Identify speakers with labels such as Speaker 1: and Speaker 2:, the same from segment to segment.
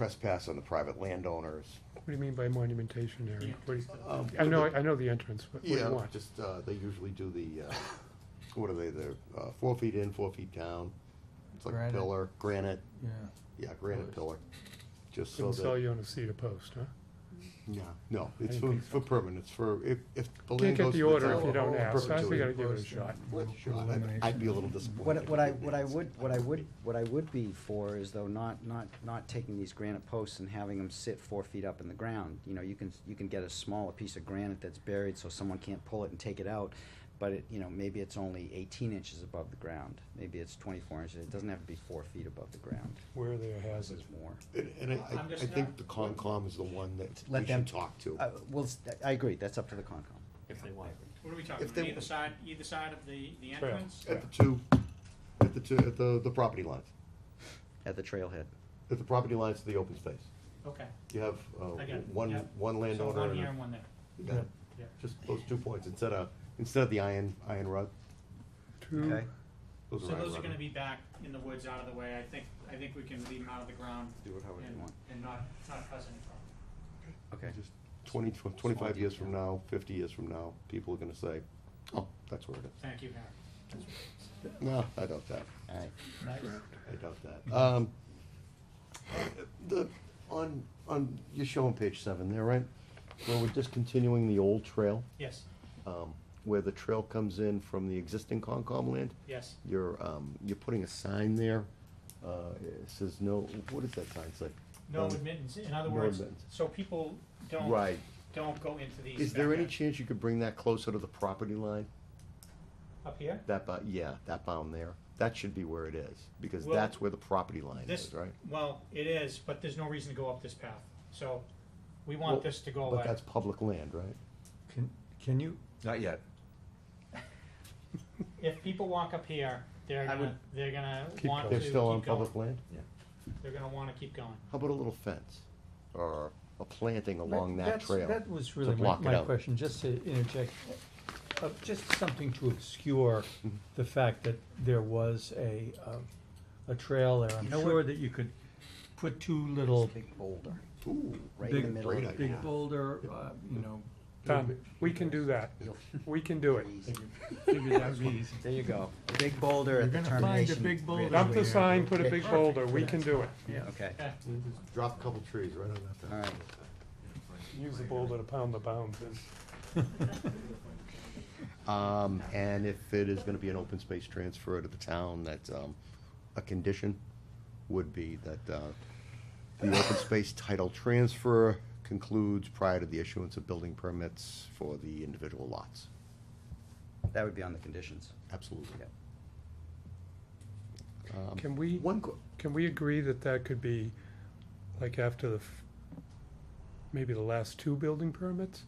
Speaker 1: trespass on the private landowners.
Speaker 2: What do you mean by monumentation area? What do you-
Speaker 1: Um,
Speaker 2: I know, I know the entrance, but what do
Speaker 1: Yeah,
Speaker 2: you want?
Speaker 1: just, uh, they usually do the, uh, what are they, they're, uh, four feet in, four feet down. It's like a
Speaker 3: Granite.
Speaker 1: pillar, granite,
Speaker 3: Yeah.
Speaker 1: yeah, granite pillar, just so
Speaker 2: Couldn't sell
Speaker 1: that.
Speaker 2: you on a cedar post, huh?
Speaker 1: Yeah, no,
Speaker 2: I
Speaker 1: it's
Speaker 2: didn't
Speaker 1: for,
Speaker 2: think so.
Speaker 1: for permanent, it's for, if, if the
Speaker 2: Can't
Speaker 1: land
Speaker 2: get
Speaker 1: goes to
Speaker 2: the
Speaker 1: the
Speaker 2: order if
Speaker 1: town
Speaker 2: you don't
Speaker 1: in
Speaker 2: ask, so I think I gotta
Speaker 1: perpetuity,
Speaker 2: give it a shot.
Speaker 1: I'd- I'd be a little disappointed.
Speaker 4: What,
Speaker 1: if
Speaker 4: what
Speaker 1: they
Speaker 4: I, what I
Speaker 1: didn't.
Speaker 4: would, what I would, what I would be for is though not, not, not taking these granite posts and having them sit four feet up in the ground. You know, you can, you can get a smaller piece of granite that's buried so someone can't pull it and take it out. But it, you know, maybe it's only eighteen inches above the ground. Maybe it's twenty-four inches. It doesn't have to be four feet above the ground.
Speaker 2: Where there has it.
Speaker 4: It's more.
Speaker 1: And, and I, I-
Speaker 5: I'm just
Speaker 1: I think
Speaker 5: not-
Speaker 1: the Concom is the one that
Speaker 4: Let
Speaker 1: we
Speaker 4: them-
Speaker 1: should talk to.
Speaker 4: Uh, well, s- I agree. That's up to the Concom.
Speaker 5: If they want. What are we
Speaker 1: If they-
Speaker 5: talking, either side, either side of the, the
Speaker 2: Trail.
Speaker 5: entrance?
Speaker 1: At the two, at the two, at the, the property lines,
Speaker 4: At the trailhead.
Speaker 1: at the property lines to the open space.
Speaker 5: Okay.
Speaker 1: You have, uh,
Speaker 5: I got it,
Speaker 1: one,
Speaker 5: yep.
Speaker 1: one
Speaker 5: So
Speaker 1: landowner.
Speaker 5: one
Speaker 1: and a-
Speaker 5: here and one there.
Speaker 1: Yeah.
Speaker 5: Yeah.
Speaker 1: Just those two points, instead of, instead of the iron, iron rod,
Speaker 2: Two,
Speaker 4: Okay.
Speaker 1: those
Speaker 5: So
Speaker 1: are iron
Speaker 5: those are
Speaker 1: rod.
Speaker 5: gonna be back in the woods out of the way. I think, I think we can leave them out of the ground
Speaker 4: Do it however you
Speaker 5: and,
Speaker 4: want.
Speaker 5: and not, not cause any problem.
Speaker 4: Okay.
Speaker 1: Just Twenty, tw- twenty-five years from now, fifty years from now, people are gonna say, oh, that's where it is.
Speaker 5: Thank you, Harry.
Speaker 1: No, I doubt that,
Speaker 4: All right.
Speaker 1: I doubt that. Um, the, on, on, you're showing page seven there, right? Where we're discontinuing the old trail,
Speaker 5: Yes,
Speaker 1: um, where the trail comes in from the existing Concom land.
Speaker 5: yes.
Speaker 1: You're, um, you're putting a sign there, uh, it says no, what does that sign say?
Speaker 5: No
Speaker 1: Um,
Speaker 5: admittance, in other
Speaker 1: no
Speaker 5: words,
Speaker 1: admittance.
Speaker 5: so people don't,
Speaker 1: Right.
Speaker 5: don't go into these.
Speaker 1: Is there any
Speaker 5: backyards.
Speaker 1: chance you could bring that closer to the property line?
Speaker 5: Up here?
Speaker 1: That, bu- yeah, that bound there. That should be where it is, because
Speaker 5: Well,
Speaker 1: that's where the property line
Speaker 5: This,
Speaker 1: is, right?
Speaker 5: well, it is, but there's no reason to go up this path. So we
Speaker 1: Well,
Speaker 5: want this to go
Speaker 1: But
Speaker 5: away.
Speaker 1: that's public land, right?
Speaker 3: Can, can you,
Speaker 6: Not yet.
Speaker 5: If people walk up here, they're gonna, they're gonna
Speaker 2: Keep
Speaker 5: want to
Speaker 1: They're
Speaker 5: keep
Speaker 1: still on
Speaker 5: going.
Speaker 1: public land?
Speaker 5: They're gonna wanna keep going.
Speaker 1: How about a little fence? Or a planting along that
Speaker 3: That's-
Speaker 1: trail?
Speaker 3: That was really my,
Speaker 1: block it
Speaker 3: my
Speaker 1: out.
Speaker 3: question, just to interject, uh, just something to obscure
Speaker 1: Mm-hmm.
Speaker 3: the fact that there was a, uh, a trail there. I'm
Speaker 4: You know what-
Speaker 3: sure that you could put two little
Speaker 4: Big boulder,
Speaker 1: Ooh,
Speaker 4: right in the
Speaker 3: big,
Speaker 4: middle.
Speaker 1: great
Speaker 4: of the
Speaker 1: idea.
Speaker 3: big boulder, uh, you know.
Speaker 2: Tom, we can do that. We can do it.
Speaker 3: Figured that would be easy.
Speaker 4: There you go. A big boulder at the
Speaker 3: You're gonna find a
Speaker 4: termination
Speaker 3: big boulder.
Speaker 4: grid.
Speaker 2: Dump the sign, put a big boulder, we can do it.
Speaker 4: Okay,
Speaker 1: Drop a couple trees right on that
Speaker 4: all
Speaker 1: fence.
Speaker 4: right.
Speaker 2: Use the boulder to pound the bounds in.
Speaker 1: Um, and if it is gonna be an open space transfer to the town, that, um, a condition would be that, uh, the open space title transfer concludes prior to the issuance of building permits for the individual lots.
Speaker 4: That would be on the conditions.
Speaker 1: Absolutely.
Speaker 4: Yep.
Speaker 1: Um,
Speaker 2: Can we-
Speaker 1: One, que-
Speaker 2: Can we agree that that could be, like, after the, f- maybe the last two building permits?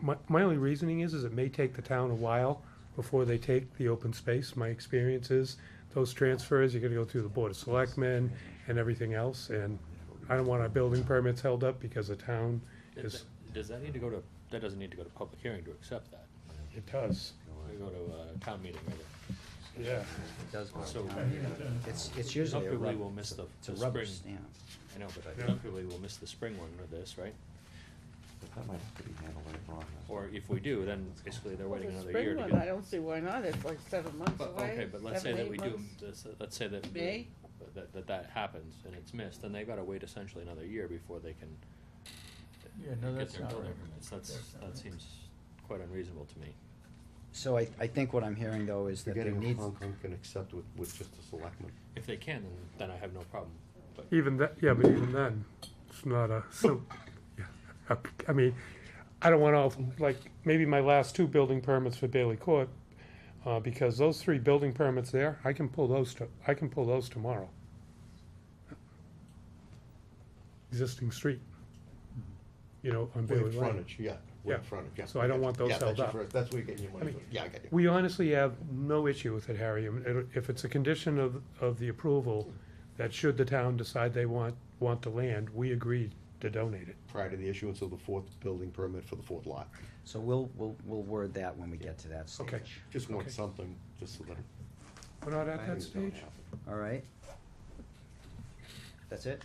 Speaker 2: My, my only reasoning is, is it may take the town a while before they take the open space. My experience is, those transfers, you gotta go through the Board of Selectmen and everything else, and I don't want our building permits held up because the town is,
Speaker 7: Does that need to go to, that doesn't need to go to public hearing to accept that.
Speaker 2: it does,
Speaker 7: We go to uh town meeting, rather.
Speaker 2: yeah.
Speaker 4: It does go
Speaker 7: So-
Speaker 4: down. It's, it's usually a
Speaker 7: Hopefully
Speaker 4: rubber,
Speaker 7: we'll miss the,
Speaker 4: it's a
Speaker 7: the
Speaker 4: rubber
Speaker 7: spring.
Speaker 4: stamp.
Speaker 7: I know, but
Speaker 2: Yeah.
Speaker 7: hopefully we'll miss the spring one with this, right?
Speaker 4: That might have to be handled later on.
Speaker 7: Or if we do, then basically they're
Speaker 8: Well,
Speaker 7: waiting
Speaker 8: the
Speaker 7: another
Speaker 8: spring
Speaker 7: year to
Speaker 8: one,
Speaker 7: get.
Speaker 8: I don't see why not, it's like seven months
Speaker 7: But,
Speaker 8: away.
Speaker 7: okay, but let's say
Speaker 8: seven,
Speaker 7: that
Speaker 8: eight
Speaker 7: we do,
Speaker 8: months.
Speaker 7: this- uh, let's say that, we-
Speaker 8: May?
Speaker 7: that, that that happens and it's missed, then they gotta wait essentially another year before they can
Speaker 3: Yeah, no,
Speaker 7: get
Speaker 3: that's
Speaker 7: their
Speaker 3: not
Speaker 7: building
Speaker 3: right.
Speaker 7: permits. That's, that seems quite unreasonable to me.
Speaker 4: So I, I think what I'm hearing though is that there
Speaker 1: forgetting if
Speaker 4: needs,
Speaker 1: Hong Kong can accept with, with just a selectman.
Speaker 7: If they can, then, then I have no problem, but.
Speaker 2: Even that, yeah, but even then, it's not a, so, yeah, I- I mean, I don't want all, like, maybe my last two building permits for Bailey Court, uh, because those three building permits there, I can pull those to, I can pull those tomorrow. Existing street, you know, on Bailey
Speaker 1: With
Speaker 2: Lane.
Speaker 1: frontage, yeah, with
Speaker 2: Yeah.
Speaker 1: frontage, yeah.
Speaker 2: So I don't
Speaker 1: got
Speaker 2: want
Speaker 1: you.
Speaker 2: those
Speaker 1: Yeah,
Speaker 2: held
Speaker 1: that's your
Speaker 2: up.
Speaker 1: first- That's where you're getting your money
Speaker 2: I mean,
Speaker 1: from, yeah, I got you.
Speaker 2: We honestly have no issue with it, Harry. I mean, it- If it's a condition of, of the approval, that should the town decide they want, want the land, we agreed to donate it.
Speaker 1: Prior to the issuance of the fourth building permit for the fourth lot.
Speaker 4: so we'll, we'll, we'll word that when we get to that
Speaker 2: Okay.
Speaker 4: stage.
Speaker 1: Just want
Speaker 2: Okay.
Speaker 1: something, just so that.
Speaker 2: We're not at that
Speaker 1: things don't
Speaker 2: stage?
Speaker 1: happen.
Speaker 4: All right? That's it?